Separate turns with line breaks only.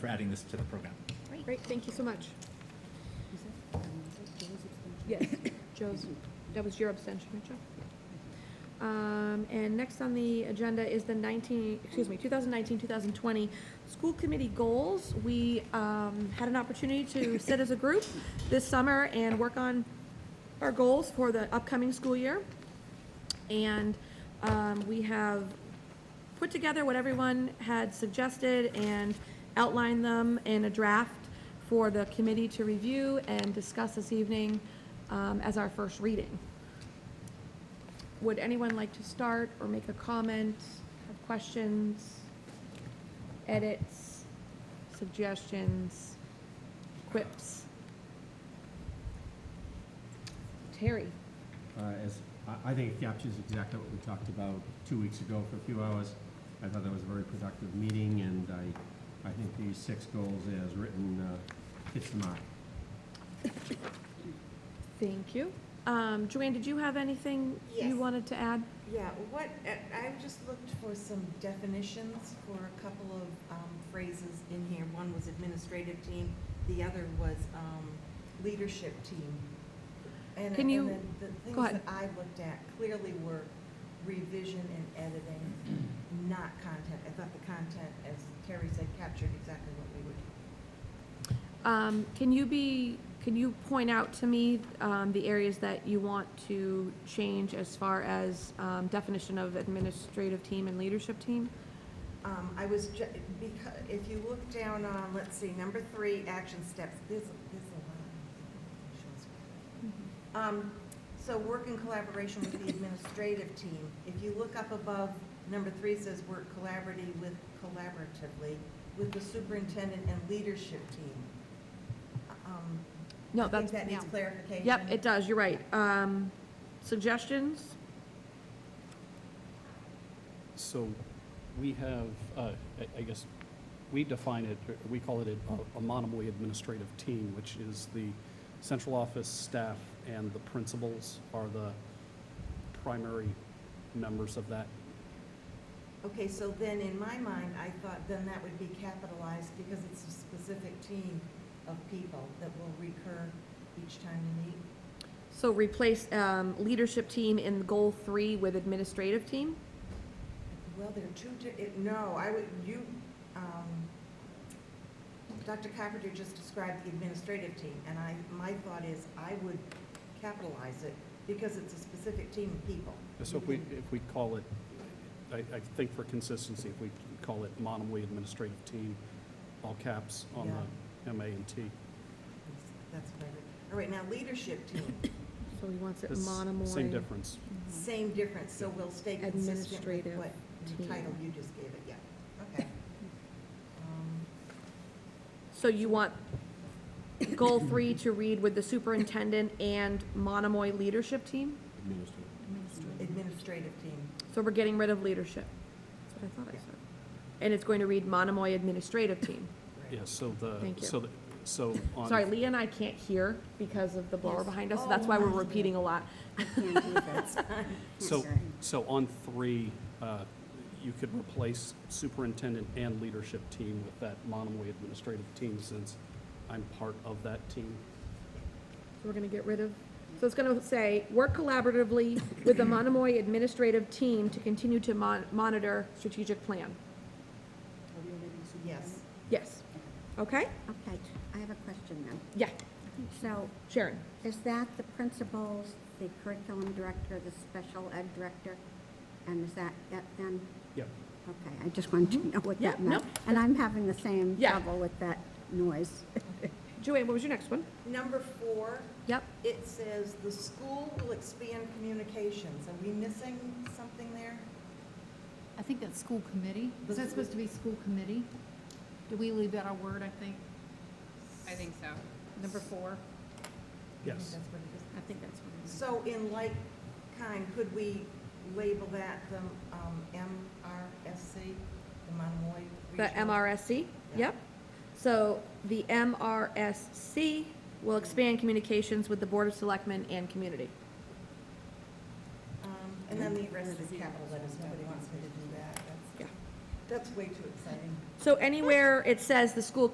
for adding this to the program.
Great, thank you so much. Yes, Joe's, that was your abstention, right, Joe? Um, and next on the agenda is the nineteen, excuse me, 2019-2020 school committee goals. We, um, had an opportunity to sit as a group this summer and work on our goals for the upcoming school year. And, um, we have put together what everyone had suggested and outlined them in a draft for the committee to review and discuss this evening um, as our first reading. Would anyone like to start or make a comment, have questions, edits, suggestions, quips? Terry?
Uh, As, I- I think it captures exactly what we talked about two weeks ago for a few hours. I thought that was a very productive meeting, and I, I think these six goals as written uh, hits the mark.
Thank you. Um, Joanne, did you have anything you
Yes.
wanted to add?
Yeah, what, I I just looked for some definitions for a couple of um, phrases in here. One was administrative team, the other was um, leadership team. And-
Can you-
And then the
go
things
ahead.
that I looked at clearly were revision and editing, not content. I thought the content, as Terry said, captured exactly what we would.
Um, can you be, can you point out to me, um, the areas that you want to change as far as, um, definition of administrative team and leadership team?
Um, I was, ju- because, if you look down on, let's see, number three, action steps, there's, there's a lot. Shows
Mm-hmm.
Um, so work in collaboration with the administrative team. If you look up above, number three says work collaboratively with, collaboratively with the superintendent and leadership team. Um, I
No,
think
Oh, that's,
that needs
yeah.
clarification.
Yep, it does, you're right. Um, suggestions?
So we have, uh, I- I guess, we define it, or we call it a- a Monomoy administrative team, which is the central office staff and the principals are the primary members of that.
Okay, so then in my mind, I thought then that would be capitalized because it's a specific team of people that will recur each time you meet.
So replace, um, leadership team in goal three with administrative team?
Well, there are two, di- it- no, I would, you, um, Dr. Carpenter just described the administrative team, and I, my thought is I would capitalize it because it's a specific team of people.
So if we, if we call it, I, I think for consistency, if we call it Monomoy administrative team, all caps on the M, A, and T.
That's what I read. All right, now leadership team,
So he wants it
That's
monomoy.
Same difference.
same difference, so we'll stay consistent with
Administrative
what
team.
title you just gave it, yeah, okay. Um,
So you want goal three to read with the superintendent and Monomoy leadership team?
Administrative.
Administrative team,
So we're getting rid of leadership. That's what I thought I said. And it's going to read Monomoy administrative team.
right.
Yes, so the,
Thank you.
so, the- so on.
Sorry, Leah and I can't hear because of the blower
Yes.
behind us, so
Oh,
that's why we're
I see.
repeating a lot.
I can't either.
So, so on three, uh, you could replace superintendent and leadership team with that Monomoy administrative team since I'm part of that team.
So we're gonna get rid of, so it's gonna say, work collaboratively with the Monomoy administrative team to continue to mon- monitor strategic plan.
Yes,
Yes. Okay?
Okay, I have a question then.
Yeah.
So
Sharon?
is that the principals, the curriculum director, the special ed director? And is that it then?
Yep.
Okay, I just wanted to know what
Mm-hmm. Yeah,
that meant.
no.
And I'm having the same
Yeah.
trouble with that noise.
Joanne, what was your next one?
number four,
Yep.
It says the school will expand communications. Are we missing something there?
I think that's school committee. Is that supposed to be school committee? Do we leave that a word, I think?
I think so.
Number four?
Yes.
That's what it
I think that's what it
is.
is.
So in like kind, could we label that the um, MRSC, the Monomoy
The
Regional?
MRSC, yep. So the MRSC will expand communications with the Board of Selectmen and community.
Um, And then the rest is capital letters. Nobody wants me to do that. That's-
Yeah.
That's way too exciting.
So anywhere it says the school